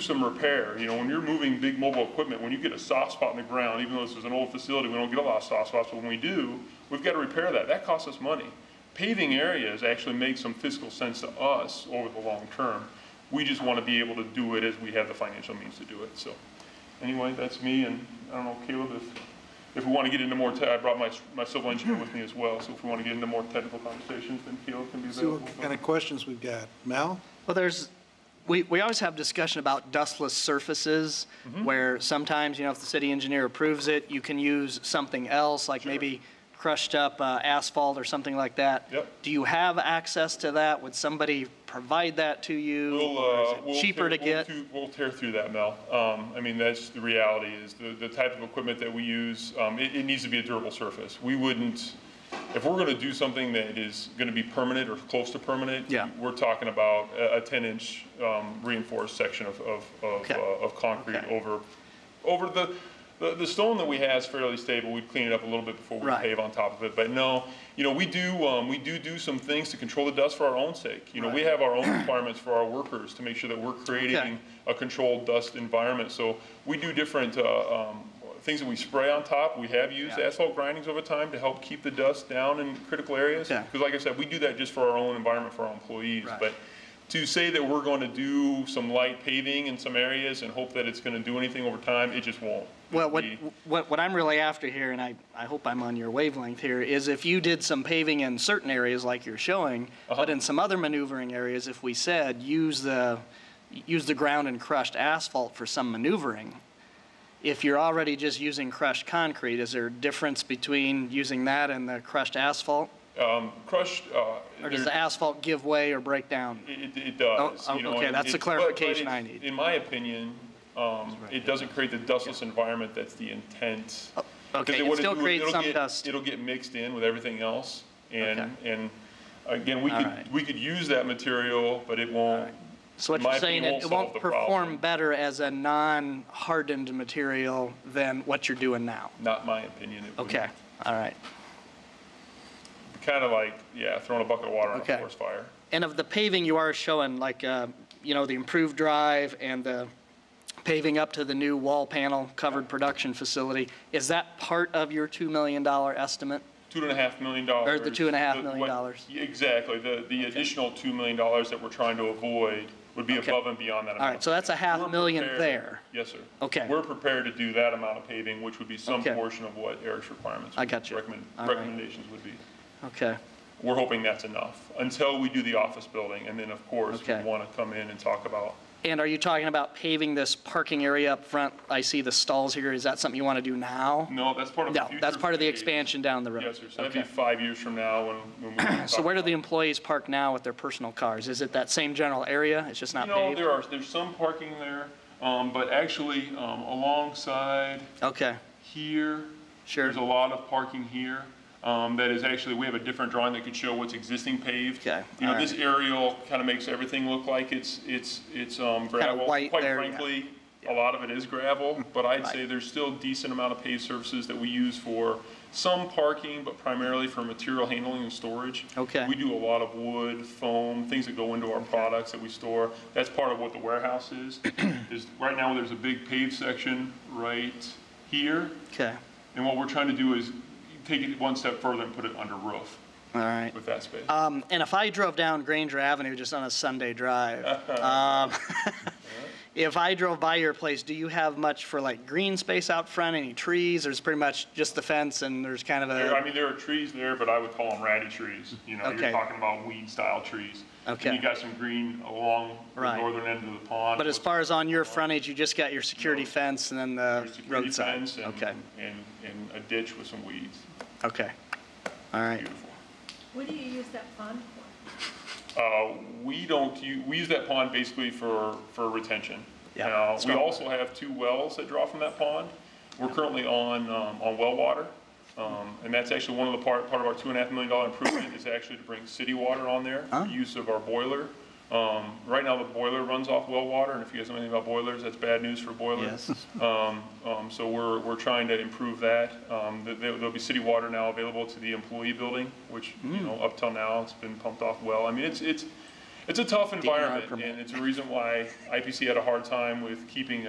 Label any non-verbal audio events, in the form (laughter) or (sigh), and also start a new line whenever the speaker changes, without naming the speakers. some repair, you know, when you're moving big mobile equipment, when you get a soft spot in the ground, even though this is an old facility, we don't get a lot of soft spots, but when we do, we've got to repair that. That costs us money. Paving areas actually makes some fiscal sense to us over the long term. We just want to be able to do it as we have the financial means to do it, so. Anyway, that's me, and I don't know, Caleb, if, if we want to get into more, te- I brought my, my civil engineer with me as well, so if we want to get into more technical conversations, then Caleb can be
See
available.
what kind of questions we've got. Mal?
Well, there's, we, we always have discussion about dustless surfaces,
Mm-hmm.
where sometimes, you know, if the city engineer approves it, you can use something else, like maybe crushed up uh, asphalt or something like that.
Yep.
Do you have access to that? Would somebody provide that to you?
We'll,
Or is
uh,
it
we'll
Cheaper
tear-
to
we'll
get?
through- We'll tear through that, Mel. Um, I mean, that's the reality, is the, the type of equipment that we use, um, it, it needs to be a durable surface. We wouldn't, if we're gonna do something that is gonna be permanent or close to permanent,
Yeah.
we're talking about a, a ten-inch, um, reinforced section of, of, of,
Okay.
uh, of concrete
Okay.
over, over the, the, the stone that we have is fairly stable. We'd clean it up a little bit before we
Right.
pave on top of it, but no, you know, we do, um, we do do some things to control the dust for our own sake. You know, we
Right.
have our own (clears throat) requirements for our workers to make sure that we're creating a controlled dust environment. So we do different, uh, um, things that we spray on top. We have used
Yeah.
asphalt grindings over time to help keep the dust down in critical areas.
Okay.
Because like I said, we do that just for our own environment, for our employees.
Right.
But to say that we're going to do some light paving in some areas and hope that it's going to do anything over time, it just won't.
Well, what,
It'd be-
what, what I'm really after here, and I, I hope I'm on your wavelength here, is if you did some paving in certain areas like you're showing,
Uh-huh.
but in some other maneuvering areas, if we said, use the, use the ground and crushed asphalt for some maneuvering, if you're already just using crushed concrete, is there a difference between using that and the crushed asphalt?
Crushed, uh.
Or does
there-
the asphalt give way or break down?
It, it does.
Oh,
you know,
okay,
and
that's the
it- but- but
clarification
it-
I need.
In my opinion, um, it doesn't create the dustless environment that's the intent. 'Cause
Oh, okay,
they
it
wanna
still
do
creates
it'll
some
get-
dust.
It'll get mixed in with everything else, and,
Okay.
and again, we could,
Alright.
we could use that material, but it won't.
So what
in my
you're saying,
opinion,
it it
solve
won't
the problem.
perform better as a non-hardened material than what you're doing now?
Not my opinion. it would
Okay, all right.
be Kinda like, yeah, throwing a bucket of water on a
Okay.
forest fire.
And of the paving you are showing, like, uh, you know, the improved drive and the paving up to the new wall panel covered production facility, is that part of your $2 million estimate?
Two and a half million dollars.
Or the two and a half million
what-
dollars.
Exactly, the, the additional two million dollars that we're trying to avoid would be
Okay.
above and beyond that amount.
All right, so that's a half
We're
million
prepared-
there.
Yes, sir.
Okay.
We're prepared to do that amount of paving, which would be some
Okay.
portion of what Eric's requirements.
I got you.
recommend-
All right.
Recommendations would be.
Okay,
We're hoping that's enough, until we do the office building, and then, of course, we
Okay.
want to come in and talk about,
and are you talking about paving this parking area up front? I see the stalls here, is that something you want to do now?
no, that's part of the
No,
future.
that's part of the
phase.
expansion down the road.
Yes, sir, so that'd be
Okay.
five years from now, when,
(clears throat)
when we.
So where do the employees park now with their personal cars? Is it that same general area? It's just not
No,
paved?
there are, there's some parking there, um, but actually, um, alongside
Okay,
here.
Sure.
There's a lot of parking here, um, that is actually, we have a different drawing that could show what's existing paved.
Okay,
You know,
all
this aerial kind of makes everything look like it's, it's, it's, um, gravel.
white there,
Quite
yeah.
frankly, a lot of it is gravel, but I'd
Right.
say there's still decent amount of paved surfaces that we use for some parking, but primarily for material handling and storage.
Okay.
We do a lot of wood, foam, things that go into our products that we store. That's part of what the warehouse is.
(clears throat)
Is right now, there's a big paved section right here,
okay,
and what we're trying to do is take it one step further and put it under roof
all right.
with that space.
Um, and if I drove down Granger Avenue just on a
(laughs)
Sunday drive, um, (laughs) if I drove by your place, do you have much for like green space out front, any trees? There's pretty much just the fence and there's kind of
There- I
a,
mean, there are trees there, but I would call them ratty trees. You know, you're
Okay.
talking about weed-style trees.
Okay.
And you got some green along the
Right.
northern end of the pond.
but as
with
far as on your frontage, you just got your security fence and then the
there's security
roadside?
fence and-
Okay,
And, and a ditch with some weeds.
okay, all right.
Beautiful.
What do you use that pond for?
Uh, We don't, u- we use that pond basically for, for retention.
Yeah,
Now, we
stormwater.
also have two wells that draw from that pond. We're currently on, um, on well water. um, And that's actually one of the part, part of our two and a half million dollar improvement is actually to bring city water on there for use of our boiler. Um, Right now, the boiler runs off well water, and if you guys know anything about boilers, that's bad news for boilers.
Yes.
Um, um, So we're, we're trying to improve that. Um, th- there- There'll be city water now available to the employee building, which, you know, up till now, it's been pumped off well. I mean, it's, it's, It's a tough environment,
permit.
and it's a reason why IPC had a hard time with keeping a